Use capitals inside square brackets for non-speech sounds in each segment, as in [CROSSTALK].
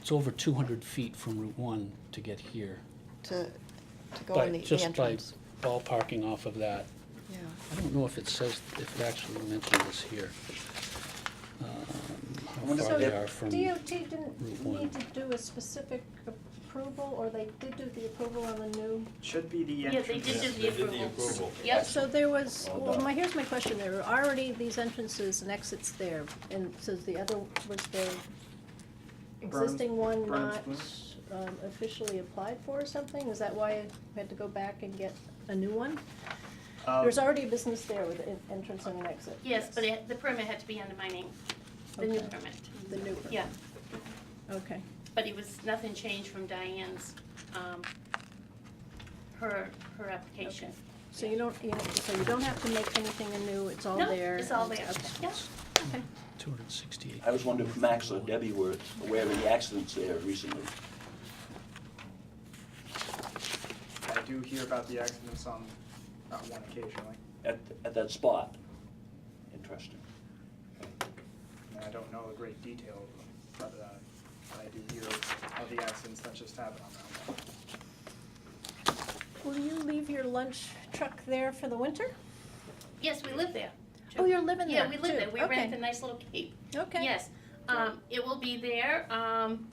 It's over two hundred feet from Route one to get here. to, to go By- in the- the just by entrance. Ballparking off of that. Yeah, I don't know if it says, if it actually mentions this here. um, How wonder far if they they- are from, DOT Route didn't need to do a specific approval, or they did do the approval on the new? Should be the Yeah, they entrance. did do the They did the approval. approval. Yep. So there was, Well well, done. my, here's my question, there were already these entrances and exits there, and so the other, was the Burns- existing one Burns not Blues? um, officially applied for or something? Is that why I had to go back and get a new one? Uh, There's already a business there with an entrance and an exit. Yes, but it, the permit had to be under my name, the new Okay. permit, The new one? yeah. Okay, But it was, nothing changed from Diane's, um, her, her application. so you don't, you don't- so you don't have to make anything anew, it's all No, there? it's all and there, okay. yeah. Okay. two hundred sixty-eight. I was wondering if Max or Debbie were aware of any accidents there recently. I do hear about the accidents on, uh one occasionally, at, at that spot. Interesting. and I don't know the great detail of them, but, uh, but I do hear of the accidents that just happened on that one. Will you leave your lunch truck there for the winter? Yes, we live there. Oh, you're living there Yeah, we live too. there, we Okay. rent a nice little cape. Okay. Yes, um, it will be there, um,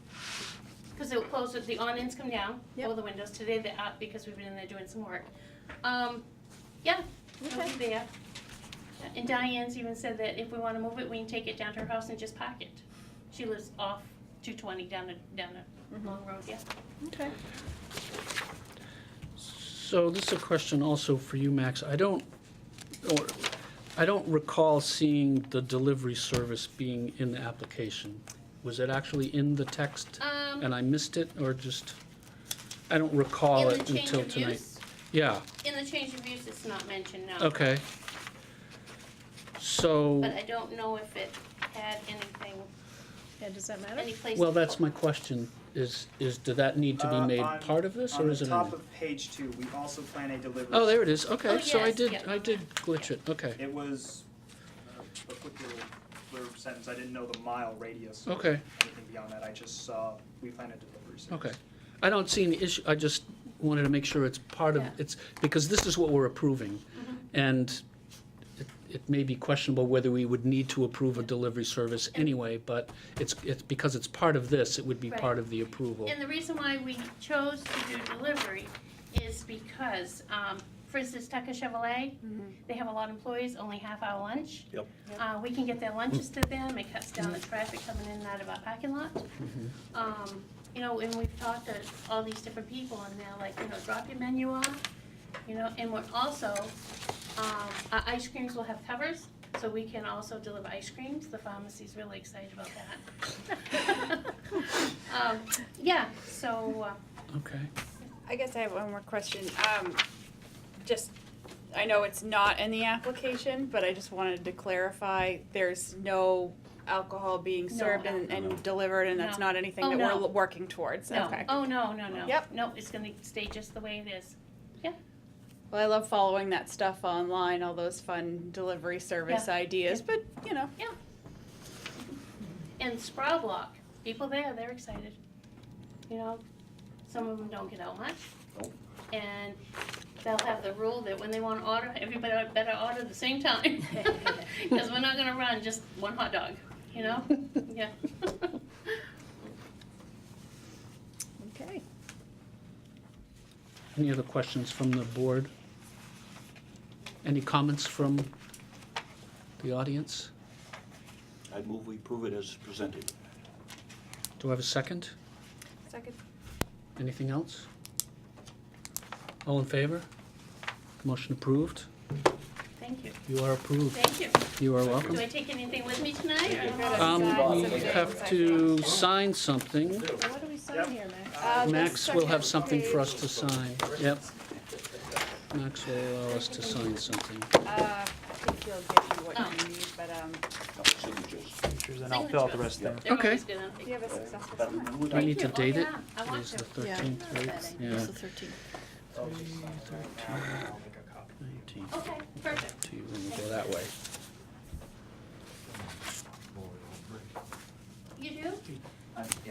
cause it will close, with- the awnings come down, all Yep. the windows, today they're up because we've been in there doing some work. Um, yeah, it'll Okay. be there. And Diane's even said that if we wanna move it, we can take it down to her house and just pack it. She lives off two twenty down a, down Mhm. a long road, yeah. Okay. So this is a question also for you, Max. I don't, or, I don't recall seeing the delivery service being in the application. Was it actually in the text Um, and I missed it, or just, I don't recall in the it change until of tonight? use, Yeah, in the change of use, it's not mentioned, no. okay. So. But I don't know if it had anything, Yeah, does that matter? any place. Well, to- that's my question, is, is, do that need to be Uh, made on- part of this, or is it? in On the top there? of page two, we also plan a delivery. Oh, there it is, okay, Oh, so I yes, did, yeah. I did glitch it, okay, It was uh, a quick little blurb sentence, I didn't know the mile radius or okay, anything beyond that, I just saw, we plan a delivery service. okay. I don't see any issue, I just wanted to make sure it's part of, Yeah. it's, because this is what we're approving. Mm-hmm. And it, it may be questionable whether we would need to approve a delivery service anyway, but it's, it's, because it's part of this, it would be Right. part of the approval. And the reason why we chose to do delivery is because, um, for instance, Tucker Chevrolet, they have a lot of employees, only half hour lunch. Yep. Uh, we can get their lunches to them, it cuts down the traffic coming in and out of our parking lot. Um, you know, and we've talked to all these different people and they're like, you know, drop your menu off, you know, and we're also, um, our ice creams will have covers, so we can also deliver ice creams, the pharmacy's really excited about that. [LAUGHS] Um, yeah, so, uh, Okay, I guess I have one more question. Um, just, I know it's not in the application, but I just wanted to clarify, there's no alcohol being No served and, alcohol. and delivered, and that's No. not anything Oh, that we're no. l- working towards, okay? no, oh, no, no, no. Yep. No, it's gonna stay just the way it is. Well, I love following that stuff online, all those fun delivery service Yeah. ideas, but, you know, And Sprout Block, people there, they're excited. You know, some of them don't get out much. Nope. And they'll have the rule that when they wanna order, everybody better order at the same time. Cause we're not gonna run just one hot dog, you know? Yeah. [LAUGHS] Okay. any other questions from the board? Any comments from the audience? I move we prove it as presented. Do I have a second? Second. Anything else? All in favor? Motion approved. Thank you, You are approved. thank you. You are Do welcome. I take anything with me tonight? Oh, or- Um, Sign we some have things, to sign Uh, something. Well, What do we sign Yep. here, Max? Uh, the Max will have second something for us page, to sign. Yep. Max will allow us to sign something. Uh, I think he'll give you what Oh. you need, but, um, No signatures. and I'll fill out the rest of them. They're Okay. always good, aren't they? you have a successful But summer. would Do we I- need to you. Oh, date it? yeah, I want Today's the to. Yeah. 13th, right? It's Yeah. the thirteenth. I'll just sign it right now, and I'll make a copy. 19th. Okay, perfect. to you when we go that way. You do? Uh,